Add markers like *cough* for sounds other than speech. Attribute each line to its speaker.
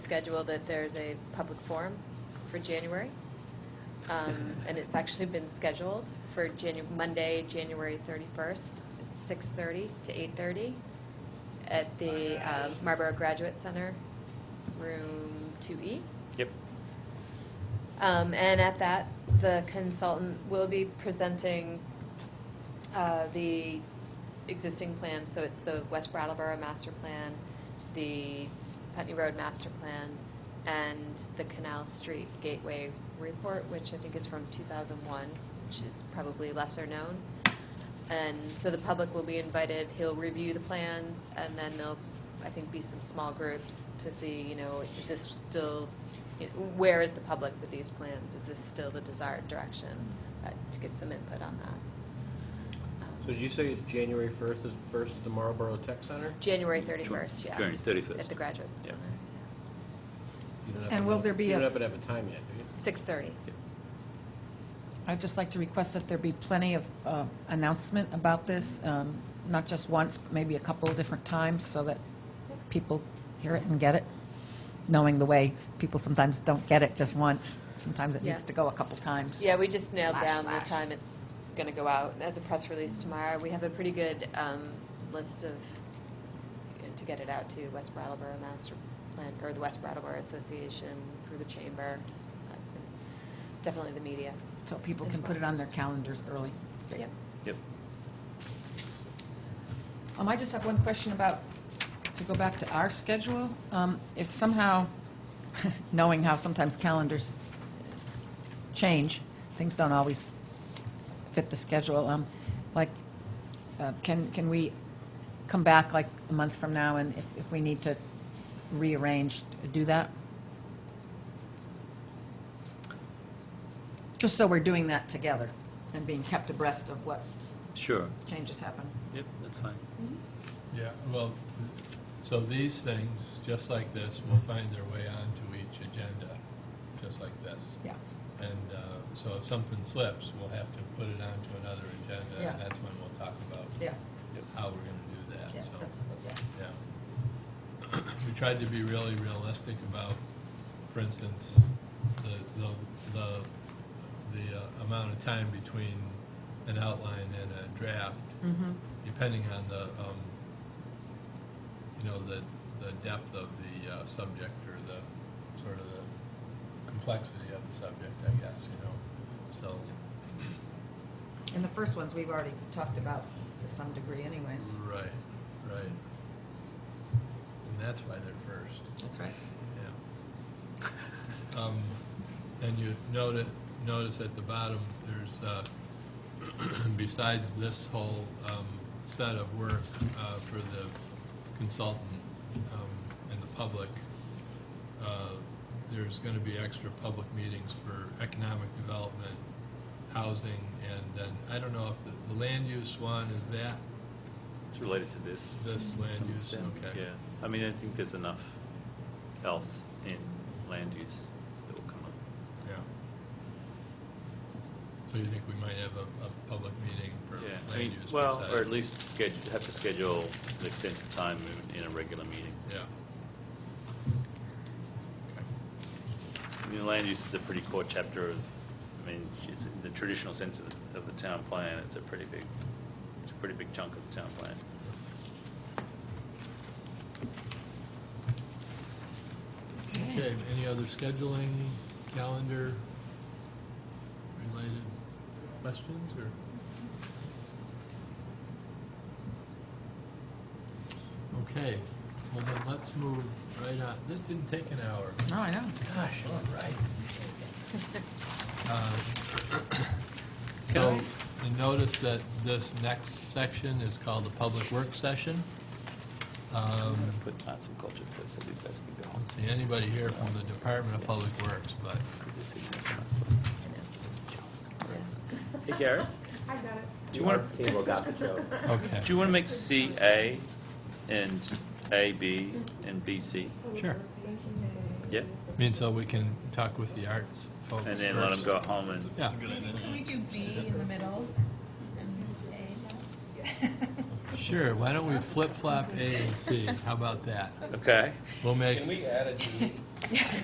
Speaker 1: schedule that there's a public forum for January. Um, And it's actually been scheduled for Janu, Monday, January 31st, 6:30 to 8:30 at the uh, Marlborough Graduate Center, room E. 2E.
Speaker 2: Yep.
Speaker 1: Um, and at that, the consultant will be presenting uh, the existing plan, so it's the West Brattleboro master plan, the Putney Road master plan, and the Canal Street Gateway report, which I think is from 2001, which is probably lesser known. And so the public will be invited, he'll review the plans, and then there'll, I think, be some small groups to see, you know, is this still, where is the public with these plans? Is this still the desired direction? Uh, To get some input on that. Um,
Speaker 3: So did you say it's January first is first at the Marlboro Tech Center?
Speaker 1: January 31st, yeah.
Speaker 2: January 31st.
Speaker 1: At the Graduate Center.
Speaker 3: You don't have
Speaker 4: And
Speaker 3: to
Speaker 4: will
Speaker 3: know-
Speaker 4: there be
Speaker 3: You don't
Speaker 4: a-
Speaker 3: have to have a time yet, do you?
Speaker 1: 6:30.
Speaker 4: I'd just like to request that there be plenty of uh, announcement about this, um, not just once, but maybe a couple of different times, so that people hear it and get it, knowing the way people sometimes don't get it just once. Sometimes it needs
Speaker 1: Yeah.
Speaker 4: to go a couple times.
Speaker 1: Yeah, we just nailed
Speaker 4: Flash,
Speaker 1: down the
Speaker 4: flash.
Speaker 1: time it's going to go out as a press release tomorrow. We have a pretty good um, list of, to get it out to West Brattleboro Master Plan, or the West Brattleboro Association, through the chamber, uh, definitely the media.
Speaker 4: So people
Speaker 1: As
Speaker 4: can put
Speaker 1: well.
Speaker 4: it on their calendars early.
Speaker 1: Yep.
Speaker 2: Yep.
Speaker 4: Um, I just have one question about, to go back to our schedule. Um, If somehow, *laughs* knowing how sometimes calendars change, things don't always fit the schedule, um, like, uh, can, can we come back like a month from now and if, if we need to rearrange, do that? Just so we're doing that together and being kept abreast of what
Speaker 2: Sure.
Speaker 4: changes happen.
Speaker 2: Yep, that's fine.
Speaker 5: Yeah, well, so these things, just like this, will find their way onto each agenda, just like this.
Speaker 4: Yeah.
Speaker 5: And uh, so if something slips, we'll have to put it onto another agenda,
Speaker 4: Yeah.
Speaker 5: and that's when we'll talk about
Speaker 4: Yeah.
Speaker 5: how we're gonna do that, so.
Speaker 4: yeah.
Speaker 5: Yeah. *clears throat* We tried to be really realistic about, for instance, the, the, the, the uh, amount of time between an outline and a draft,
Speaker 4: Mm-hmm,
Speaker 5: depending on the, um, you know, the, the depth of the uh, subject or the, sort of the complexity of the subject, I guess, you know,
Speaker 4: and the first ones we've already talked about to some degree
Speaker 5: so,
Speaker 4: anyways.
Speaker 5: right, right. And that's why they're first.
Speaker 4: That's right.
Speaker 5: Yeah. Um, And you notice, notice at the bottom, there's, uh, *clears throat* besides this whole um, set of work uh, for the consultant um, and the public, uh, there's going to be extra public meetings for economic development, housing, and then, I don't know if the- the land use one, is that
Speaker 2: It's related to this.
Speaker 5: this land
Speaker 2: Some
Speaker 5: use?
Speaker 2: extent,
Speaker 5: Okay.
Speaker 2: Yeah, I mean, I think there's enough else in land use that will come up.
Speaker 5: Yeah. So you think we might have a, a public meeting for
Speaker 2: Yeah, I
Speaker 5: land
Speaker 2: mean,
Speaker 5: use?
Speaker 2: well, or at
Speaker 5: besides-
Speaker 2: least schedule, have to schedule an extensive time in- in a regular meeting.
Speaker 5: Yeah.
Speaker 2: I mean, land use is a pretty core chapter of, I mean, it's in the traditional sense of, the- of the town plan, it's a pretty big, it's a pretty big chunk of the town plan.
Speaker 5: Okay, any other scheduling, calendar related questions or? Okay, well then let's move right on. This didn't take an hour.
Speaker 4: No, Oh, I know.
Speaker 5: Gosh, all right. Uh, *coughs*
Speaker 2: Can
Speaker 5: So,
Speaker 2: I-
Speaker 5: you notice that this next section is called the public work session. Um,
Speaker 2: Put arts and culture first, so these guys can go
Speaker 5: I
Speaker 2: home.
Speaker 5: don't see anybody here from the Department of Public Works, but,
Speaker 2: Hey, Garrett,
Speaker 6: *laughs* I got it.
Speaker 2: do you want to,
Speaker 5: okay.
Speaker 2: do you want to make C A and A B and B C?
Speaker 5: Sure.
Speaker 2: Yep,
Speaker 5: I mean, so we can talk with the arts folks
Speaker 2: and then let them
Speaker 5: first.
Speaker 2: go home and,
Speaker 5: Yeah,
Speaker 7: Can we do B in the middle?
Speaker 5: sure, why don't we flip-flop A and C? How about that?
Speaker 2: okay?
Speaker 5: We'll make,
Speaker 3: we add a D